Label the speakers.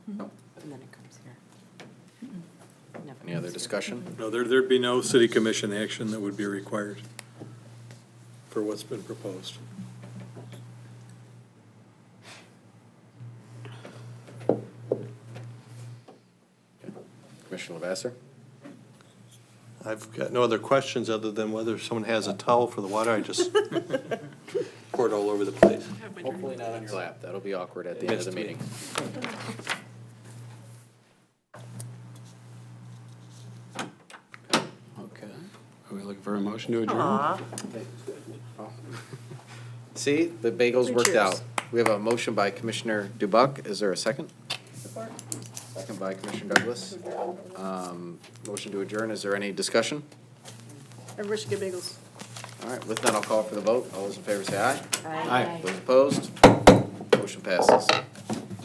Speaker 1: Any other discussion?
Speaker 2: No, there, there'd be no city commission action that would be required for what's been proposed.
Speaker 1: Commissioner Lavasser?
Speaker 3: I've got no other questions other than whether someone has a towel for the water. I just poured all over the place.
Speaker 1: Hopefully not on your lap. That'll be awkward at the end of the meeting.
Speaker 4: Okay. Are we looking for a motion to adjourn?
Speaker 5: Aw,
Speaker 1: See, the bagels
Speaker 5: Three
Speaker 1: worked
Speaker 5: cheers.
Speaker 1: out. We have a motion by Commissioner Dubuck. Is there a second? Second by Commissioner Douglas. Um, Motion to adjourn. Is there any discussion?
Speaker 5: everybody should get bagels.
Speaker 1: All right, with that, I'll call for the vote. All those in favor say aye.
Speaker 5: Aye.
Speaker 1: Those opposed? Motion passes.